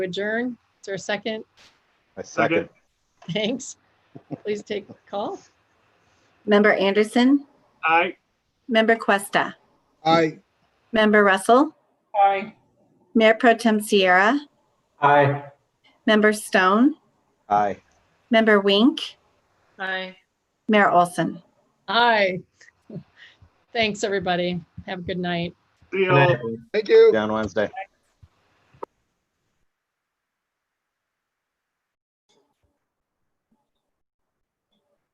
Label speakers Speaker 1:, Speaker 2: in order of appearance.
Speaker 1: adjourn. Is there a second?
Speaker 2: I second.
Speaker 1: Thanks. Please take the call.
Speaker 3: Member Anderson,
Speaker 4: Aye.
Speaker 3: Member Cuesta,
Speaker 5: Aye.
Speaker 3: Member Russell,
Speaker 4: Aye.
Speaker 3: Mayor Pro Tem Sierra,
Speaker 4: Aye.
Speaker 3: Member Stone,
Speaker 2: Aye.
Speaker 3: Member Wink,
Speaker 1: Aye.
Speaker 3: Mayor Olson.
Speaker 1: Aye. Thanks, everybody. Have a good night.
Speaker 4: See you all.
Speaker 5: Thank you.
Speaker 2: Down Wednesday.